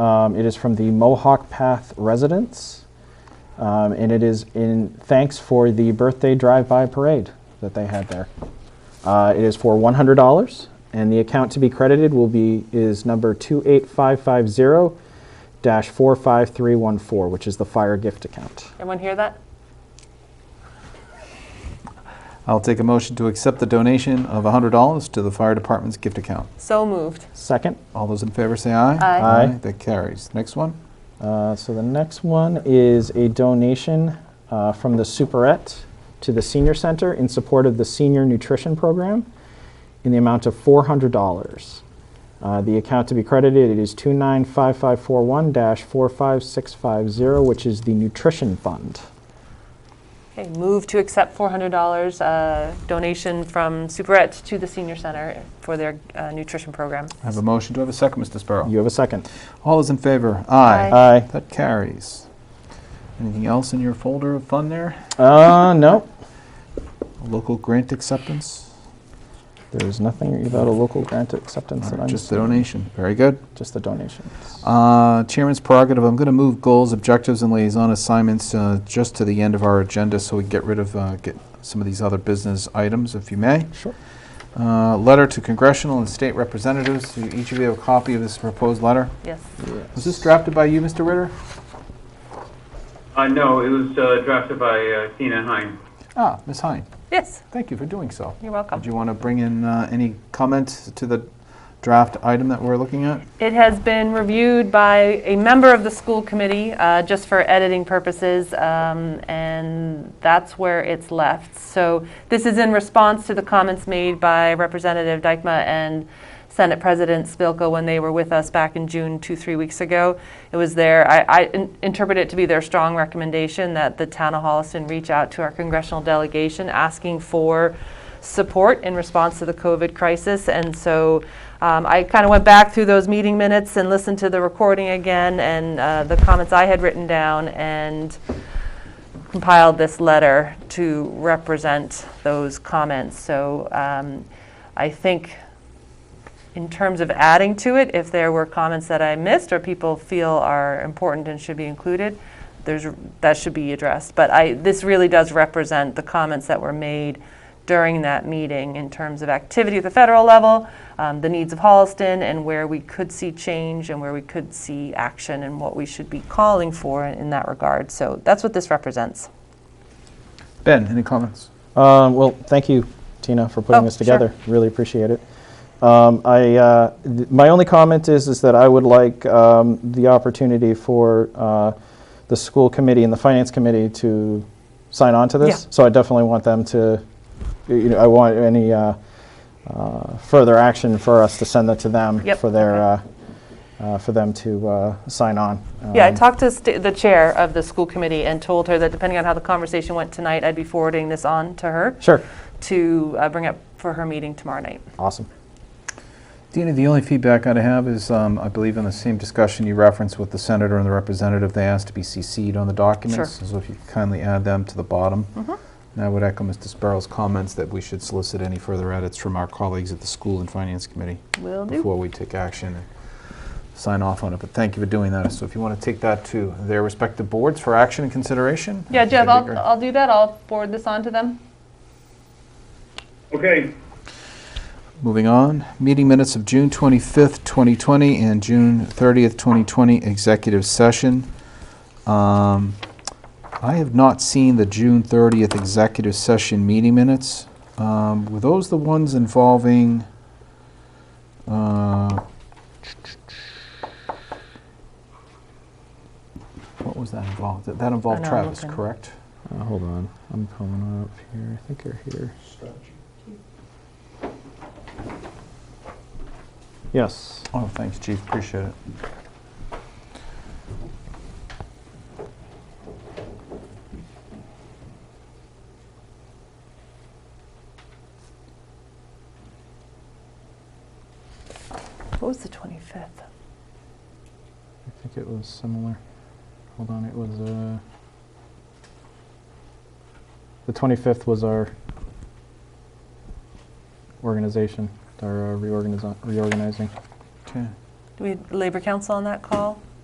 Um, It is from the Mohawk Path residents, um, and it is in thanks for the birthday drive-by parade that they had there. Uh, It is for $100, and the account to be credited will be, is number 28550-45314, which is the fire gift account. Everyone hear that? I'll take a motion to accept the donation of $100 to the fire department's gift account. So moved. Second? All those in favor say aye. Aye. Aye. That carries. Next one. Uh, So the next one is a donation uh, from the Superette to the Senior Center in support of the Senior Nutrition Program in the amount of $400. Uh, The account to be credited, it is 295541-45650, which is the Nutrition Fund. Okay, move to accept $400 uh, donation from Superette to the Senior Center for their uh, nutrition program. I have a motion. Do I have a second, Mr. Sparrow? You have a second? All those in favor? Aye. Aye. That carries. Anything else in your folder of fun there? Uh, no, Local grant acceptance? there's nothing about a local grant acceptance that I'm... Just the donation. Very good. Just the donations. Uh, Chairman's prerogative, I'm going to move goals, objectives, and liaison assignments uh, just to the end of our agenda so we get rid of, uh, get some of these other business items, if you may. Sure. Uh, Letter to congressional and state representatives, Do each of you have a copy of this proposed letter. Yes. Was this drafted by you, Mr. Ritter? Uh, no, it was uh, drafted by uh, Tina Hine. Ah, Ms. Hine, Yes, thank you for doing so. you're welcome. Did you want to bring in uh, any comment to the draft item that we're looking at? It has been reviewed by a member of the school committee, uh, just for editing purposes, um, and that's where it's left. So this is in response to the comments made by Representative Dykma and Senate President Spilka when they were with us back in June, two, three weeks ago. It was their, I- I in- interpret it to be their strong recommendation that the town of Holliston reach out to our congressional delegation, asking for support in response to the COVID crisis. And so um, I kind of went back through those meeting minutes and listened to the recording again and uh, the comments I had written down and compiled this letter to represent those comments. So um, I think in terms of adding to it, if there were comments that I missed or people feel are important and should be included, there's, that should be addressed. But I, this really does represent the comments that were made during that meeting in terms of activity at the federal level, um, the needs of Holliston, and where we could see change and where we could see action and what we should be calling for in, in that regard. So that's what this represents. Ben, any comments? Um, Well, thank you, Tina, for putting Oh, this sure. together. Really appreciate it. Um, I, uh, th- my only comment is, is that I would like um, the opportunity for uh, the school committee and the finance committee to sign on to this. Yeah. So I definitely want them to, you know, I want any uh, uh, further action for us to send that to them Yep, for their, uh, uh, for them to uh, sign on. Yeah, I Um, talked to st- the chair of the school committee and told her that depending on how the conversation went tonight, I'd be forwarding this on to her Sure. to uh, bring up for her meeting tomorrow night. Awesome. Dina, the only feedback I'd have is, um, I believe in the same discussion you referenced with the senator and the representative, they asked to be CC'd on the documents. So if you could kindly add them to the bottom. And I would echo Mr. Sparrow's comments that we should solicit any further edits from our colleagues at the School and Finance Committee Will do. before we take action and sign off on it. But thank you for doing that. So if you want to take that to their respective boards for action and consideration. Yeah, Jeff, that'd be I'll, great. I'll do that. I'll forward this on to them. Okay, Moving on, meeting minutes of June 25th, 2020, and June 30th, 2020, executive session. Um, I have not seen the June 30th executive session meeting minutes. Um, Were those the ones involving, uh, what was that involved? That- That involved I know, I'm Travis, looking. correct? Uh, Hold on, I'm pulling up here. I think you're here. Yes. Oh, thanks, Chief, appreciate it. What was the 25th? I think it was similar. Hold on, it was, uh, the 25th was our organization, our uh, reorganiz- reorganizing. Okay. Do we had Labor Council on that call?